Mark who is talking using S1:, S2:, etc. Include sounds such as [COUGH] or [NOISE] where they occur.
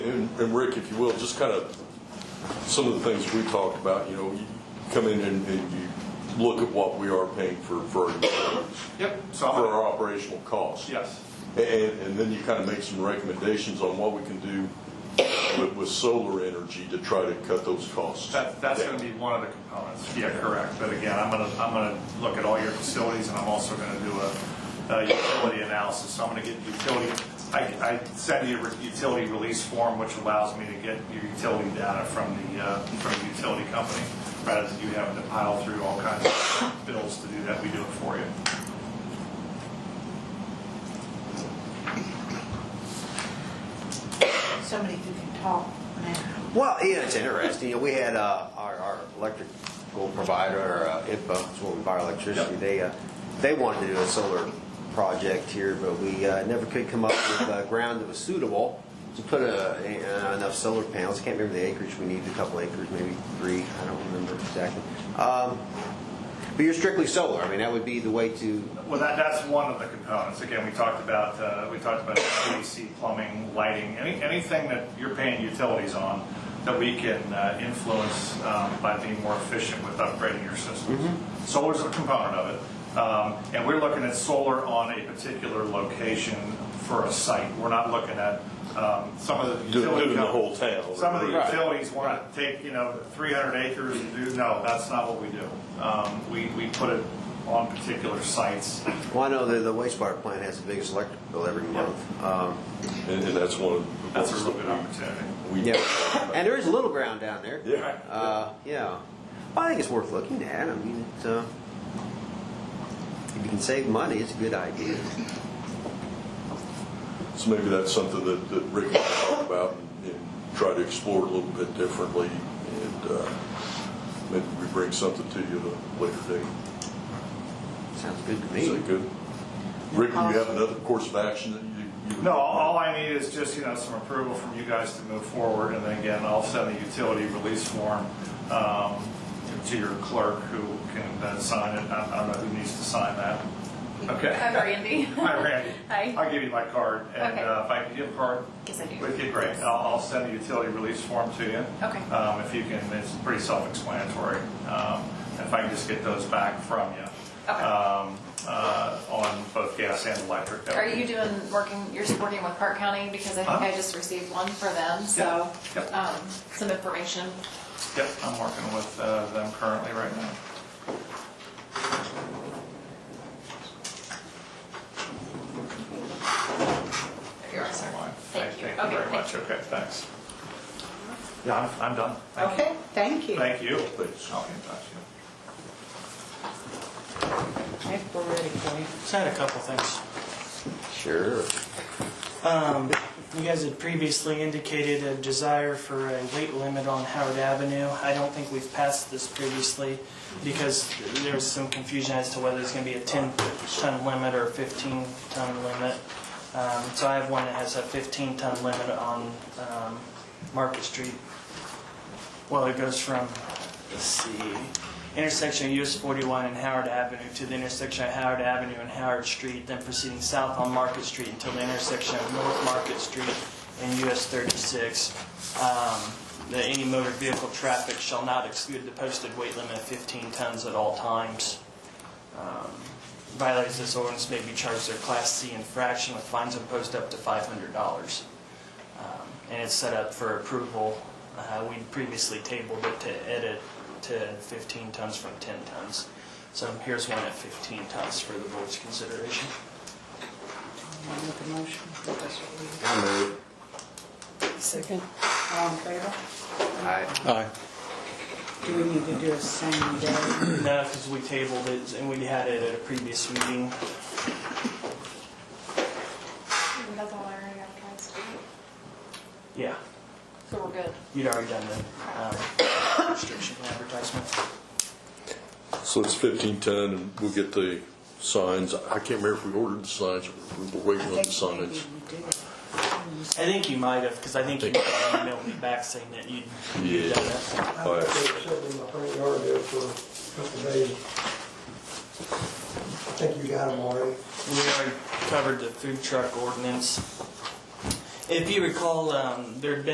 S1: and Rick, if you will, just kind of, some of the things we talked about, you know, you come in and, and you look at what we are paying for, for our,
S2: Yep, so I'm
S1: for
S2: gonna,
S1: our operational costs.
S2: yes,
S1: And, and then you kind of make some recommendations on what we can do with, with solar energy to try to cut those costs.
S2: that, that's
S1: down.
S2: gonna be one of the components, yeah, correct, but again, I'm gonna, I'm gonna look at all your facilities, and I'm also gonna do a, a utility analysis, so I'm gonna get utility, I, I send you a re- utility release form, which allows me to get your utility data from the, uh, from the utility company, rather than you having to pile through all kinds of bills to do that, we do it for you.
S3: somebody who can talk now.
S4: Well, yeah, it's interesting. You know, we had uh, our, our electrical provider, or uh, IPA, is where we buy our electricity. They uh, they wanted to do a solar project here, but we uh, never could come up with uh, ground that was suitable to put a, a, uh, enough solar panels. Can't remember the acreage we needed. A couple acres, maybe three. I don't remember exactly. Um, but you're strictly solar. I mean, that would be the way to.
S2: Well, that, that's one of the components. Again, we talked about, uh, we talked about HVAC, plumbing, lighting, any, anything that you're paying utilities on that we can uh, influence um, by being more efficient with upgrading your systems.
S1: Mm-hmm.
S2: Solar's a component of it. Um, And we're looking at solar on a particular location for a site. We're not looking at um, some of the
S1: Do-
S2: utility.
S1: Doing the
S2: companies-
S1: whole town.
S2: some of the
S1: Right.
S2: utilities want to take, you know, 300 acres and do, no, that's not what we do. Um, We, we put it on particular sites.
S4: Well, I know that the wastewater plant has the biggest electric bill every month. Um,
S1: And, and that's one of. the
S2: That's a
S1: ones
S2: real good
S1: that
S2: opportunity.
S1: we- we-
S4: yeah, and there is a little ground down there.
S1: Yeah.
S4: Uh, yeah. Well, I think it's worth looking at. I mean, it's, uh, if you can save money, it's a good idea.
S1: So maybe that's something that, that Rick and I talk about and, and try to explore a little bit differently. And, uh, maybe we bring something to you at a later date.
S4: Sounds good to
S1: Is that
S4: me.
S1: good? Rick, do you have another course of action that you? you-
S2: No, all all I need is just, you know, some approval from you guys to move forward, and then again, I'll send the utility release form um, to your clerk, who can then sign it. I I don't know who needs to sign that. Okay.
S5: Hi,
S2: [LAUGHS]
S5: Randy.
S2: Hi, Randy.
S5: Hi.
S2: I'll give you my card, and
S5: Okay.
S2: uh, if I can give a card
S5: Yes, I do.
S2: with you, great. I'll I'll send the utility release form to you.
S5: Okay.
S2: Um, If you can, it's pretty self-explanatory. Um, If I can just get those back from you.
S5: Okay.
S2: um, uh, On both gas and electric. that
S5: Are
S2: would be
S5: you doing, working, you're working with Park County? Because I think I just received one for them, so,
S2: Yeah, yeah.
S5: um, some information.
S2: Yep, I'm working with uh, them currently right now.
S5: There you are, sir.
S2: Fine.
S5: Thank you.
S2: Thank you very
S5: Okay,
S2: much. Okay, thanks. Yeah, I'm- I'm done. Thank you.
S3: Okay, thank you.
S2: Thank you.
S1: Thanks.
S2: I'll get in touch.
S3: Okay, we're ready for you.
S6: Just had a couple things.
S4: Sure.
S6: You guys had previously indicated a desire for a weight limit on Howard Avenue. I don't think we've passed this previously because there was some confusion as to whether it's going to be a 10-ton limit or a 15-ton limit. Um, So I have one that has a 15-ton limit on um, Market Street. Well, it goes from, let's see, intersection of US 41 and Howard Avenue to the intersection of Howard Avenue and Howard Street, then proceeding south on Market Street until the intersection of North Market Street and US 36. Um, That any motor vehicle traffic shall not exceed the posted weight limit of 15 tons at all times. Um, Violators of this ordinance may be charged their Class C infraction with fines imposed up to $500. Um, and it's set up for approval. Uh, We previously tabled it to edit to 15 tons from 10 tons. So here's one at 15 tons for the board's consideration. [CLEARS THROAT]
S3: I'll make a motion.
S4: I move.
S3: Second. All in favor?
S4: I,
S3: Do we need to do a same day?
S6: No, because we tabled it and we had it at a previous meeting.
S5: That's all I already advertised.
S6: Yeah,
S5: So we're good.
S6: you'd already done the um, restriction advertisement.
S1: So it's fifteen ton and we'll get the signs. I can't remember if we ordered the signs or we were waiting on the signs.
S6: I think you might have, because I think you emailed me back saying that you'd you'd done that.
S1: All
S7: They
S1: right.
S7: sitting in my front yard there for a couple of days. I think you got them already.
S6: We already covered the food truck ordinance. If you recall, um, there'd been